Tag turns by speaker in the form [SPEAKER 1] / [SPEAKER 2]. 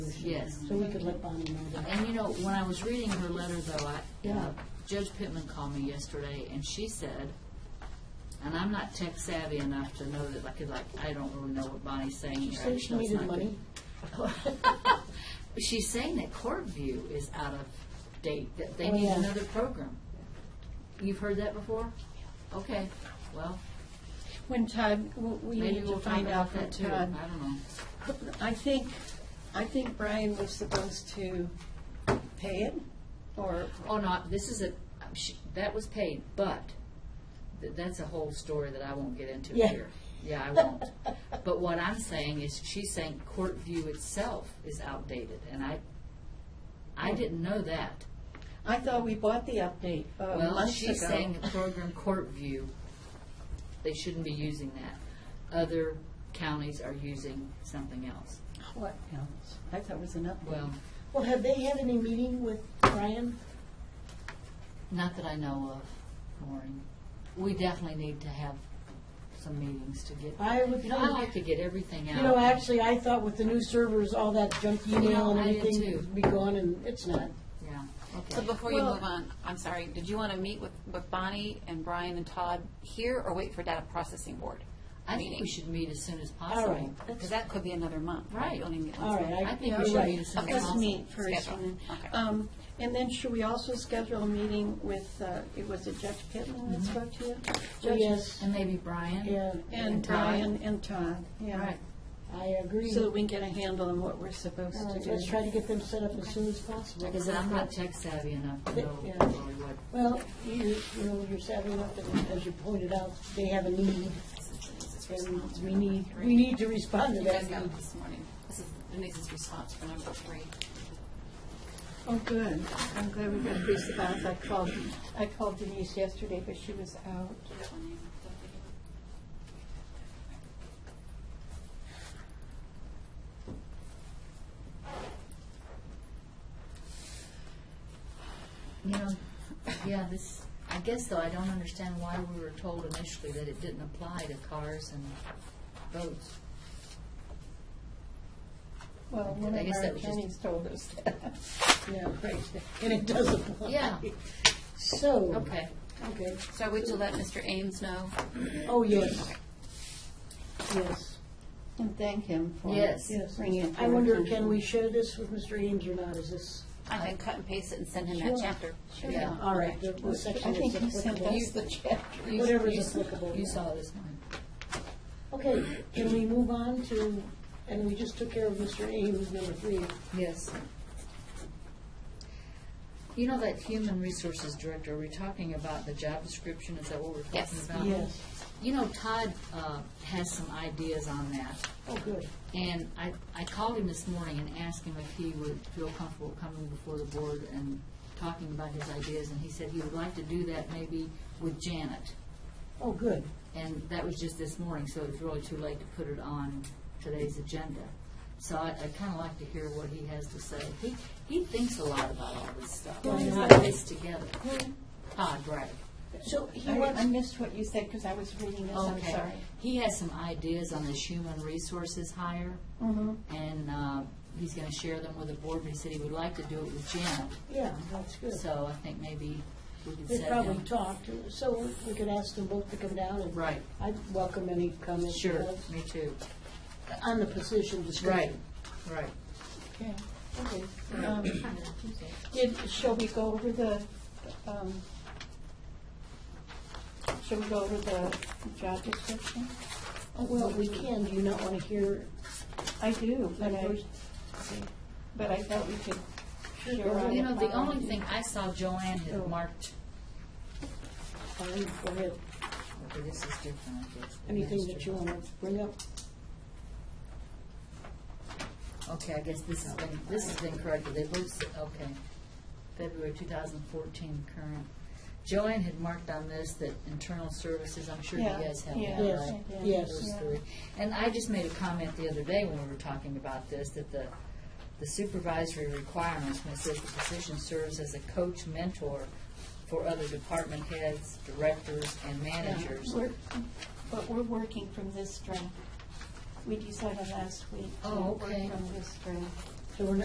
[SPEAKER 1] Yes.
[SPEAKER 2] So we could let Bonnie know that.
[SPEAKER 1] And you know, when I was reading her letter though, I,
[SPEAKER 2] Yeah.
[SPEAKER 1] uh, Judge Pittman called me yesterday and she said, and I'm not tech savvy enough to know that, like, like, I don't really know what Bonnie's saying here.
[SPEAKER 2] She
[SPEAKER 1] I
[SPEAKER 2] said
[SPEAKER 1] just
[SPEAKER 2] she
[SPEAKER 1] know it's
[SPEAKER 2] needed
[SPEAKER 1] not good.
[SPEAKER 2] money.
[SPEAKER 1] She's saying that Court View is out of date, that they
[SPEAKER 2] Oh,
[SPEAKER 1] need
[SPEAKER 2] yeah.
[SPEAKER 1] another program. You've heard that before? Okay, well,
[SPEAKER 3] When Todd, w- we
[SPEAKER 1] maybe
[SPEAKER 3] need to
[SPEAKER 1] we'll talk
[SPEAKER 3] find out
[SPEAKER 1] about
[SPEAKER 3] from
[SPEAKER 1] that too. I
[SPEAKER 3] Todd.
[SPEAKER 1] don't know.
[SPEAKER 3] I think, I think Brian was supposed to pay it, or,
[SPEAKER 1] Oh, no, this is a, she- that was paid, but th- that's a whole story that I won't get into
[SPEAKER 2] Yeah.
[SPEAKER 1] here. Yeah, I won't. But what I'm saying is, she's saying Court View itself is outdated, and I, I didn't know that.
[SPEAKER 3] I thought we bought the update uh,
[SPEAKER 1] Well,
[SPEAKER 3] months
[SPEAKER 1] she's
[SPEAKER 3] ago.
[SPEAKER 1] saying the program Court View, they shouldn't be using that. Other counties are using something else.
[SPEAKER 3] What else? I thought it was an update.
[SPEAKER 1] Well,
[SPEAKER 2] Well, have they had any meeting with Brian?
[SPEAKER 1] not that I know of, Maureen. We definitely need to have some meetings to get
[SPEAKER 2] I would
[SPEAKER 1] You know, I like
[SPEAKER 2] think,
[SPEAKER 1] to get everything out.
[SPEAKER 2] you know, actually, I thought with the new servers, all that junk email and
[SPEAKER 1] Yeah, I did
[SPEAKER 2] everything
[SPEAKER 1] too.
[SPEAKER 2] would be gone, and it's not.
[SPEAKER 1] Yeah,
[SPEAKER 4] So
[SPEAKER 1] okay.
[SPEAKER 4] before you
[SPEAKER 3] Well-
[SPEAKER 4] move on, I'm sorry, did you want to meet with, with Bonnie and Brian and Todd here or wait for data processing board?
[SPEAKER 1] I think we
[SPEAKER 4] meeting?
[SPEAKER 1] should meet as soon as
[SPEAKER 2] All right.
[SPEAKER 1] possible.
[SPEAKER 4] Because that could be another month.
[SPEAKER 1] Right.
[SPEAKER 4] You only meet
[SPEAKER 2] All
[SPEAKER 4] once a
[SPEAKER 2] right,
[SPEAKER 4] month.
[SPEAKER 1] I think
[SPEAKER 3] Yeah,
[SPEAKER 1] we should
[SPEAKER 2] right.
[SPEAKER 1] meet as soon as
[SPEAKER 3] Let's
[SPEAKER 1] possible.
[SPEAKER 3] meet first.
[SPEAKER 4] Schedule.
[SPEAKER 3] and then-
[SPEAKER 4] Okay.
[SPEAKER 3] um, And then should we also schedule a meeting with, uh, it was it Judge Pittman that spoke to you? Judge-
[SPEAKER 2] Mm-hmm. Oh, Yes,
[SPEAKER 1] And maybe Brian?
[SPEAKER 2] yeah,
[SPEAKER 3] And
[SPEAKER 1] And Todd.
[SPEAKER 3] Brian and Todd,
[SPEAKER 1] All
[SPEAKER 3] yeah.
[SPEAKER 1] right,
[SPEAKER 2] I agree.
[SPEAKER 3] So that we can get a handle on what we're supposed
[SPEAKER 2] All
[SPEAKER 3] to
[SPEAKER 2] right,
[SPEAKER 3] do.
[SPEAKER 2] Let's try to get them set up as soon as possible.
[SPEAKER 1] because I'm not tech savvy enough to know
[SPEAKER 2] Yeah.
[SPEAKER 1] really what,
[SPEAKER 2] Well, you, you know, you're savvy enough that, as you pointed out, they have a need, and we need, we need to respond to
[SPEAKER 4] You
[SPEAKER 2] that
[SPEAKER 4] guys got
[SPEAKER 2] need.
[SPEAKER 4] it this morning. This is Denise's response for number three.
[SPEAKER 3] Oh, good. I'm glad we got these about. I called, I called Denise yesterday, but she was out.
[SPEAKER 4] Do you have one in?
[SPEAKER 1] you know, yeah, this, I guess though, I don't understand why we were told initially that it didn't apply to cars and boats.
[SPEAKER 3] Well,
[SPEAKER 1] one I of guess our that was just- attorneys
[SPEAKER 3] told us that.
[SPEAKER 2] Yeah, right, and it does apply.
[SPEAKER 1] Yeah.
[SPEAKER 2] So.
[SPEAKER 1] Okay,
[SPEAKER 2] Okay,
[SPEAKER 4] So I would you let Mr. Ames know?
[SPEAKER 2] oh, yes. Yes,
[SPEAKER 3] And thank him for
[SPEAKER 1] Yes.
[SPEAKER 2] yes.
[SPEAKER 3] bringing it. to
[SPEAKER 2] I
[SPEAKER 3] our
[SPEAKER 2] wonder,
[SPEAKER 3] attention.
[SPEAKER 2] can we share this with Mr. Ames or not, is this?
[SPEAKER 4] I can cut and paste it and send him that chapter.
[SPEAKER 1] yeah.
[SPEAKER 2] All right, the- the
[SPEAKER 3] I
[SPEAKER 2] section
[SPEAKER 3] think he
[SPEAKER 2] that's
[SPEAKER 3] sent
[SPEAKER 2] applicable.
[SPEAKER 3] us the chapter.
[SPEAKER 1] You-
[SPEAKER 2] Whatever
[SPEAKER 1] you-
[SPEAKER 2] is applicable.
[SPEAKER 1] You saw this one.
[SPEAKER 2] Okay, can we move on to, and we just took care of Mr. Ames, number three.
[SPEAKER 1] Yes. You know that human resources director, we're talking about the job description, is that what we're talking
[SPEAKER 4] Yes.
[SPEAKER 1] about? You know, Todd uh, has some ideas on that,
[SPEAKER 2] Oh, good.
[SPEAKER 1] and I, I called him this morning and asked him if he would feel comfortable coming before the board and talking about his ideas, and he said he would like to do that maybe with Janet.
[SPEAKER 2] Oh, good.
[SPEAKER 1] And that was just this morning, so it's really too late to put it on today's agenda. So I, I kind of like to hear what he has to say. He, he thinks a lot about all this stuff.
[SPEAKER 2] Who is
[SPEAKER 1] He's put
[SPEAKER 2] that?
[SPEAKER 1] this together.
[SPEAKER 3] Hmm.
[SPEAKER 1] Todd Bragg.
[SPEAKER 2] So he
[SPEAKER 3] I I
[SPEAKER 2] wants,
[SPEAKER 3] missed what you said because I was reading this, I'm
[SPEAKER 1] Okay.
[SPEAKER 3] sorry.
[SPEAKER 1] He has some ideas on this human resources hire,
[SPEAKER 3] Mm-hmm.
[SPEAKER 1] and, uh, he's gonna share them with the board, but he said he would like to do it with Janet.
[SPEAKER 2] yeah, that's good.
[SPEAKER 1] So I think maybe we could
[SPEAKER 2] They
[SPEAKER 1] set
[SPEAKER 2] probably
[SPEAKER 1] him.
[SPEAKER 2] talked, so we could ask them both to come down and.
[SPEAKER 1] Right.
[SPEAKER 2] I'd welcome any comments.
[SPEAKER 1] Sure, me too.
[SPEAKER 2] On the position description.
[SPEAKER 1] right.
[SPEAKER 3] Okay.
[SPEAKER 2] Okay.
[SPEAKER 3] Um, Did, shall we go over the, um, shall we go over the job description?
[SPEAKER 2] Oh, Well, we can, do you not want to hear?
[SPEAKER 3] I do, but I,
[SPEAKER 2] Okay.
[SPEAKER 3] but I thought we could share
[SPEAKER 2] go
[SPEAKER 3] our.
[SPEAKER 2] ahead.
[SPEAKER 1] You know, the only thing I saw Joanne had marked
[SPEAKER 2] Fine, go ahead.
[SPEAKER 1] Okay, this is different, I guess.
[SPEAKER 2] Anything that you want to bring up?
[SPEAKER 1] Okay, I guess this has been, this has been corrected, they both, said- okay, February two thousand fourteen current. Joanne had marked on this that internal services, I'm sure you
[SPEAKER 3] Yeah,
[SPEAKER 1] guys have
[SPEAKER 3] yeah,
[SPEAKER 1] that,
[SPEAKER 2] Yes,
[SPEAKER 1] right?
[SPEAKER 3] yeah.
[SPEAKER 2] yes.
[SPEAKER 1] Those three. And I just made a comment the other day when we were talking about this, that the the supervisory requirements, when it says the position serves as a coach mentor for other department heads, directors, and managers.
[SPEAKER 3] We're- But we're working from this draft. We decided last week to
[SPEAKER 1] Oh,
[SPEAKER 3] work
[SPEAKER 1] okay.
[SPEAKER 3] from this draft.
[SPEAKER 2] So we're not